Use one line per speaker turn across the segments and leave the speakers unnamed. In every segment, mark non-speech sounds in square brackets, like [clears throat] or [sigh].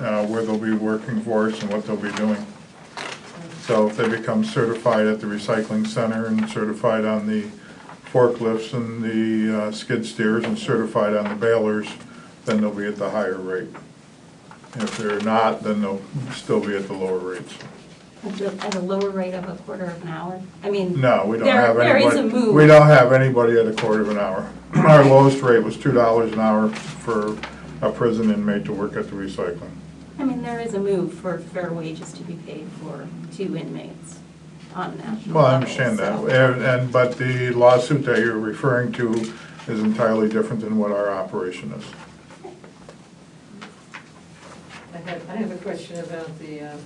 uh, where they'll be working for us and what they'll be doing. So if they become certified at the recycling center and certified on the forklifts and the uh, skid steers and certified on the balers, then they'll be at the higher rate. If they're not, then they'll still be at the lower rates.
At a- at a lower rate of a quarter of an hour? I mean.
No, we don't
there-
have
There
anybody.
is a move.
We don't have anybody at a quarter of an hour. [clears throat] Our lowest rate was two dollars an hour for a prison inmate to work at the recycling.
I mean, there is a move for fair wages to be paid for two inmates on a national level.
Well, I understand that,
so-
and, and- but the lawsuit that you're referring to is entirely different than what our operation is.
I have, I have a question about the, um,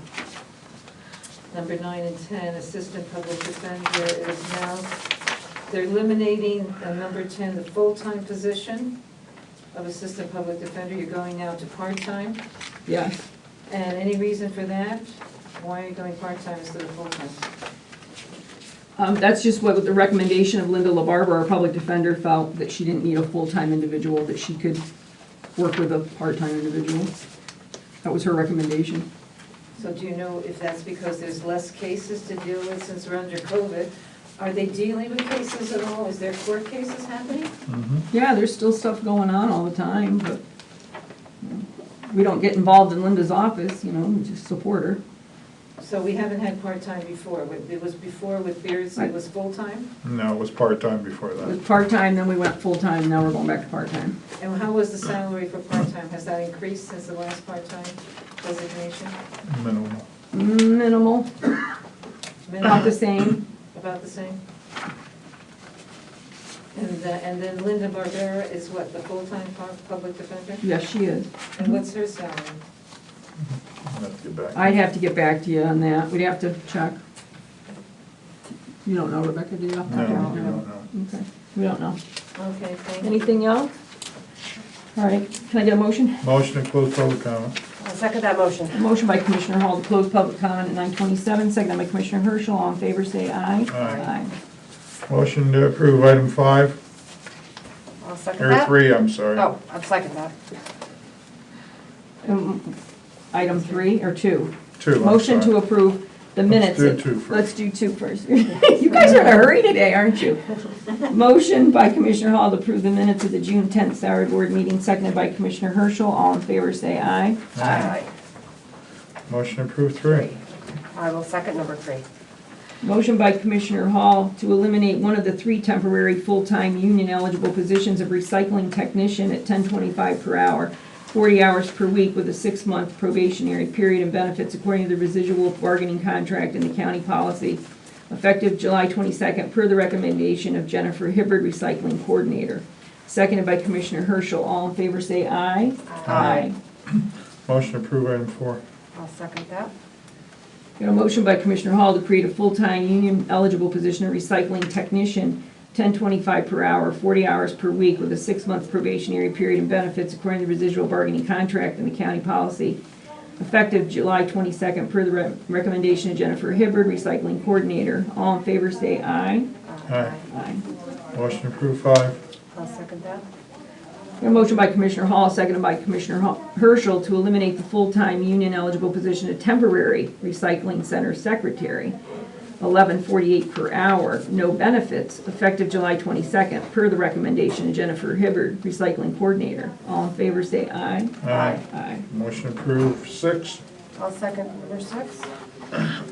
number nine and 10, assistant public defender is now, they're eliminating, uh, number 10, the full-time position of assistant public defender, you're going now to part-time,
Yes.
and any reason for that? Why are you going part-time instead of full-time?
Um, that's just what the recommendation of Linda LaBarber, our public defender, felt that she didn't need a full-time individual, that she could work with a part-time individual. That was her recommendation.
So do you know if that's because there's less cases to deal with since we're under COVID? Are they dealing with cases at all? Is there court cases happening?
Mm-hmm.
Yeah, there's still stuff going on all the time, but you know, we don't get involved in Linda's office, you know, we just support her.
So we haven't had part-time before. It was before with Beards, it was full-time?
No, it was part-time before
It was
that.
part-time, then we went full-time, now we're going back to part-time.
And how was the salary for part-time? Has that increased since the last part-time designation?
Minimal.
Minimal, about the
Minimum,
same.
about the same? And, uh, and then Linda Barbera is what, the full-time pu- public defender?
Yes, she is.
And what's her salary?
Let's get back.
I'd have to get back to you on that, we'd have to check. You don't know, Rebecca, do you?
No, I don't know.
Okay, we don't know.
Okay, thank you.
Anything else? All right, can I get a motion?
Motion to close public comment.
I'll second that motion.
A motion by Commissioner Hall to close public comment at 9:27, seconded by Commissioner Herschel. All in favor, say aye.
Aye. Motion to approve item five,
I'll second
or
that.
three, I'm sorry.
Oh, I'll second that.
Aye. Um, Item three, or two?
Two, I'm
Motion to
sorry.
approve the minutes.
do two first.
Let's do two first. [laughs] You guys are in a hurry today, aren't you? Motion by Commissioner Hall to approve the minutes of the June 10th salary board meeting, seconded by Commissioner Herschel. All in favor, say aye.
Aye.
Motion to approve three.
I will second number three.
Motion by Commissioner Hall to eliminate one of the three temporary full-time union eligible positions of recycling technician at ten twenty-five per hour, forty hours per week with a six-month probationary period and benefits according to the residual bargaining contract and the county policy, effective July twenty-second, per the recommendation of Jennifer Hibbard, recycling coordinator. Seconded by Commissioner Herschel. All in favor, say aye.
Aye.
Motion to approve item four.
I'll second that.
Got a motion by Commissioner Hall to create a full-time union eligible position of recycling technician, ten twenty-five per hour, forty hours per week with a six-month probationary period and benefits according to residual bargaining contract and the county policy, effective July twenty-second per the re- recommendation of Jennifer Hibbard, recycling coordinator. All in favor, say aye.
Aye.
Aye.
Motion to approve five.
I'll second that.
Got a motion by Commissioner Hall, seconded by Commissioner Ho- Herschel to eliminate the full-time union eligible position of temporary recycling center secretary, eleven forty-eight per hour, no benefits, effective July twenty-second, per the recommendation of Jennifer Hibbard, recycling coordinator. All in favor, say aye.
Aye.
Aye.
Motion to approve six.
I'll second number six.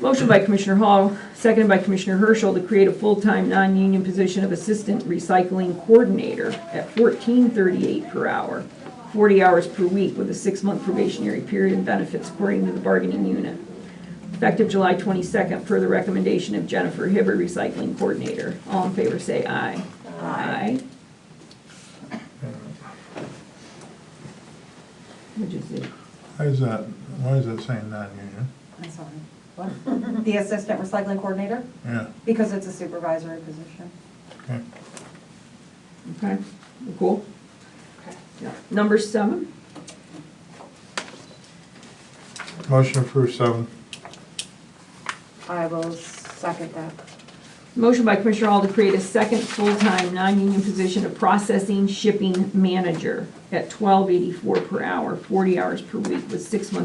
Motion by Commissioner Hall, seconded by Commissioner Herschel to create a full-time, non-union position of Assistant Recycling Coordinator at fourteen thirty-eight per hour, forty hours per week with a six-month probationary period and benefits according to the bargaining unit. Effective July twenty-second, per the recommendation of Jennifer Hibbert, Recycling Coordinator. All in favor, say aye. Aye. Which is it?
Why is that, why is that saying non-union?
I'm sorry. What? The assistant recycling coordinator,
Yeah,
because it's a supervisory position.
okay.
Okay, cool. Yeah. Number seven?
Motion to approve seven.
I will second that.
Motion by Commissioner Hall to create a second full-time, non-union position of processing shipping manager at twelve eighty-four per hour, forty hours per week with six months